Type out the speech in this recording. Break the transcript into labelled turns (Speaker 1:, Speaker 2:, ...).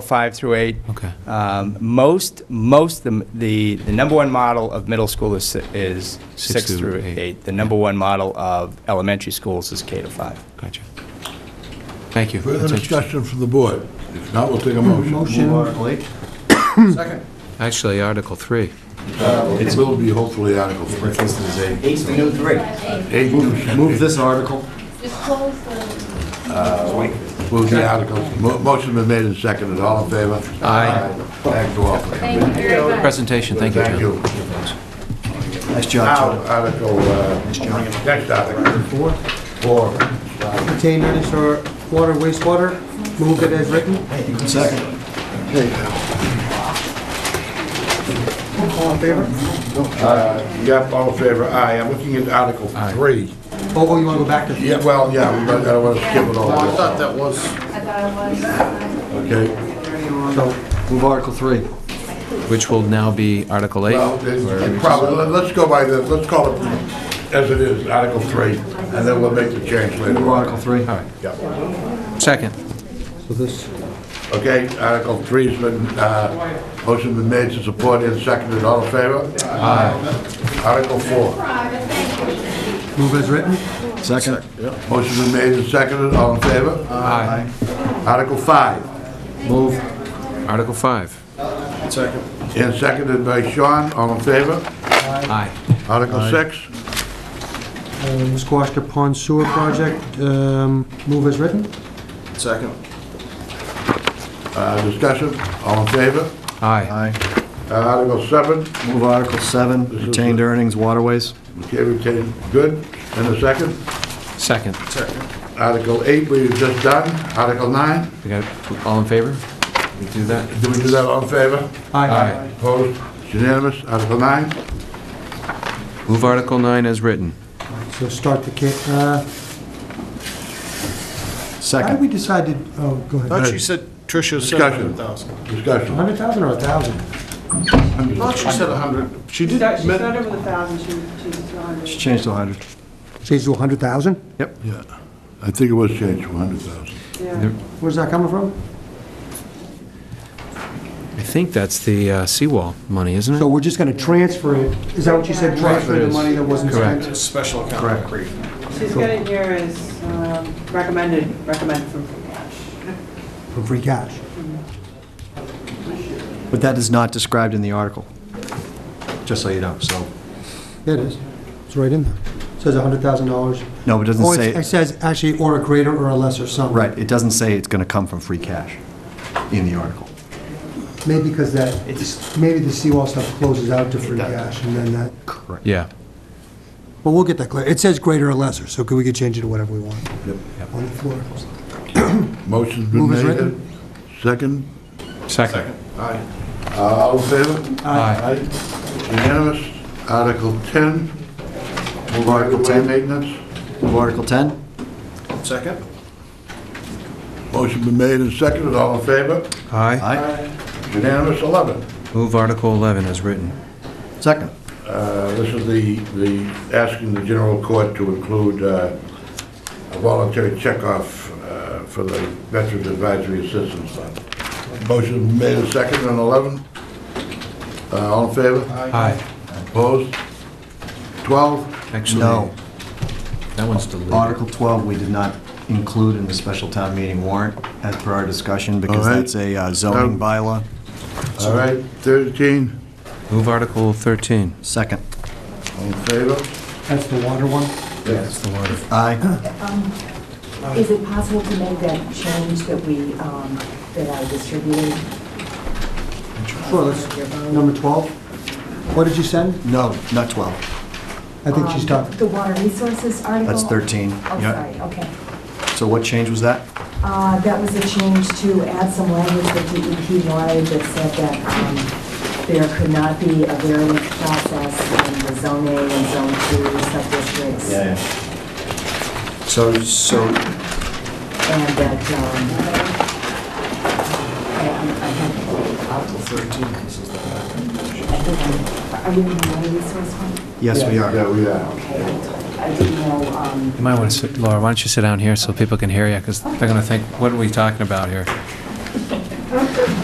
Speaker 1: five through eight.
Speaker 2: Okay.
Speaker 1: Um, Most, most, the, the the number one model of middle school is, si- is
Speaker 2: Six
Speaker 1: six through
Speaker 2: through eight.
Speaker 1: eight. The number one model of elementary schools is K to five.
Speaker 2: Gotcha. Thank you.
Speaker 3: Further
Speaker 2: That's interesting.
Speaker 3: discussion from the board? If not, we'll take a motion. Second.
Speaker 2: Actually, Article 3.
Speaker 3: It will be hopefully Article 3.
Speaker 4: This is a-
Speaker 5: Eight's the new three.
Speaker 3: Eight,
Speaker 4: Move this article.
Speaker 6: Just close the,
Speaker 3: Move the article. Mo- Motion been made and seconded. All in favor?
Speaker 2: Aye.
Speaker 3: Thank you all.
Speaker 6: thank you very much.
Speaker 2: Presentation, thank you,
Speaker 3: Thank
Speaker 2: John.
Speaker 3: you.
Speaker 4: Nice
Speaker 3: Now,
Speaker 4: job,
Speaker 3: Article, uh, next article.
Speaker 7: Four,
Speaker 3: Four.
Speaker 7: retain earnings for uh, water wastewater, move it as written.
Speaker 4: John. Second.
Speaker 7: All in favor?
Speaker 3: Uh, Yep, all in favor? Aye. I'm looking at Article 3.
Speaker 7: Oh, oh, you want to go back to?
Speaker 3: Yeah, well, yeah, we might- I don't want to skip it all. Oh, I thought that was...
Speaker 6: I thought it was, uh,
Speaker 3: Okay.
Speaker 4: So, move Article 3.
Speaker 2: Which will now be Article 8.
Speaker 3: Well, it's probably, let- let's go by the, let's call it as it is, Article 3, and then we'll make the change later
Speaker 4: Move
Speaker 3: on.
Speaker 4: Article 3.
Speaker 3: Yeah.
Speaker 2: Second.
Speaker 7: So this,
Speaker 3: Okay, Article three's been, uh, motion been made to support and seconded, all in favor? Aye. Article four,
Speaker 7: move as written,
Speaker 4: Second.
Speaker 3: motion been made and seconded, all in favor?
Speaker 2: Aye.
Speaker 3: Article five,
Speaker 4: Move.
Speaker 2: Article 5.
Speaker 4: Second.
Speaker 3: and seconded by Sean, all in favor?
Speaker 2: Aye.
Speaker 3: Article six,
Speaker 7: um, Squashka Pond Sewer Project, um, move as written.
Speaker 4: Second.
Speaker 3: uh, discussion, all in favor?
Speaker 2: Aye.
Speaker 4: Aye.
Speaker 3: Uh, Article seven,
Speaker 4: Move Article 7, retained earnings, waterways.
Speaker 3: okay, retain, good, and a second.
Speaker 2: Second.
Speaker 3: Article eight, we've just done, Article nine,
Speaker 2: We got, all in favor? We do that?
Speaker 3: did we do that, all in favor?
Speaker 2: Aye.
Speaker 3: Opposed, It's unanimous, Article nine,
Speaker 2: Move Article 9 as written.
Speaker 7: So start the ca, uh, how did we
Speaker 4: Second.
Speaker 7: decide to, oh, go ahead.
Speaker 3: she
Speaker 8: said, Tricia
Speaker 3: said Discussion. 100,000. discussion.
Speaker 7: Hundred thousand or a thousand?
Speaker 8: she said 100. She
Speaker 9: She
Speaker 8: did,
Speaker 9: started she
Speaker 8: men-
Speaker 9: started with a thousand, she, she was on.
Speaker 4: She changed to 100.
Speaker 7: Change to a hundred thousand?
Speaker 3: Yeah, I think it was changed to 100,000.
Speaker 9: Yeah.
Speaker 7: Where's that coming from?
Speaker 2: I think that's the uh, seawall money, isn't
Speaker 7: So
Speaker 2: it?
Speaker 7: we're just going to transfer it, is that what you said, transfer the money that wasn't
Speaker 2: Correct.
Speaker 7: spent?
Speaker 8: it's special account. Correct.
Speaker 9: She's got it here as um, recommended, recommended from free cash.
Speaker 7: From free cash.
Speaker 4: But that is not described in the article, just so you know, so.
Speaker 7: Yeah, It is, it's right in there. Says a hundred thousand dollars.
Speaker 4: No, but it doesn't
Speaker 7: Or it's- It
Speaker 4: say,
Speaker 7: says actually, or a greater or a lesser sum.
Speaker 4: right, it doesn't say it's going to come from free cash in the article.
Speaker 7: Maybe because that,
Speaker 5: It's-
Speaker 7: maybe the seawall stuff closes out to free
Speaker 5: does.
Speaker 7: cash and then that,
Speaker 4: Correct.
Speaker 2: Yeah.
Speaker 7: well, we'll get that clear. It says greater or lesser, so could we could change it to whatever we want on the floor.
Speaker 3: Motion's been
Speaker 7: Move as
Speaker 3: made.
Speaker 7: written.
Speaker 3: Second?
Speaker 2: Second.
Speaker 3: Aye. All in favor?
Speaker 2: Aye.
Speaker 3: Unanimous. Article 10,
Speaker 4: Move Article
Speaker 3: right-of-way
Speaker 4: 10.
Speaker 3: maintenance.
Speaker 4: Move Article 10.
Speaker 8: Second?
Speaker 3: Motion been made and seconded, all in favor?
Speaker 2: Aye.
Speaker 4: Aye.
Speaker 3: Unanimous, 11.
Speaker 2: Move Article 11 as written.
Speaker 4: Second.
Speaker 3: Uh, This is the, the, asking the general court to include uh, a voluntary checkoff uh, for the Veterans Advisory Assistance Fund. Motion made and seconded on 11. Uh, All in favor?
Speaker 2: Aye.
Speaker 3: Opposed? 12,
Speaker 2: Actually,
Speaker 4: No.
Speaker 2: That one's deleted.
Speaker 4: Article 12, we did not include in the special town meeting warrant as per our discussion because
Speaker 3: All right.
Speaker 4: that's a uh, zoning
Speaker 3: Um,
Speaker 4: bylaw.
Speaker 3: all right, 13,
Speaker 2: Move Article 13.
Speaker 4: Second.
Speaker 3: all in favor?
Speaker 7: That's the water one?
Speaker 2: That's the water.
Speaker 4: Aye.
Speaker 10: Um, Is it possible to make that change that we, um, that I distributed?
Speaker 7: Sure, that's number 12. What did you send?
Speaker 4: No, not 12.
Speaker 7: I think she's
Speaker 10: Um,
Speaker 7: done.
Speaker 10: The water resources article?
Speaker 4: That's 13.
Speaker 10: Oh,
Speaker 4: Yeah.
Speaker 10: sorry, okay.
Speaker 4: So what change was that?
Speaker 10: Uh, That was a change to add some language that DEP wanted that said that um, there could not be a variance process in the zone A and zone two sub-districts.
Speaker 4: So, so
Speaker 10: And that, um, I I- I have Article 13. I think I'm, are we in the water resource one?
Speaker 4: Yes, we
Speaker 3: Yeah,
Speaker 4: are.
Speaker 3: we are.
Speaker 10: Okay, I didn't know, um,
Speaker 2: You might want to sit, Laura, why don't you sit down here so people can hear you, because they're going to think, what are we talking about here?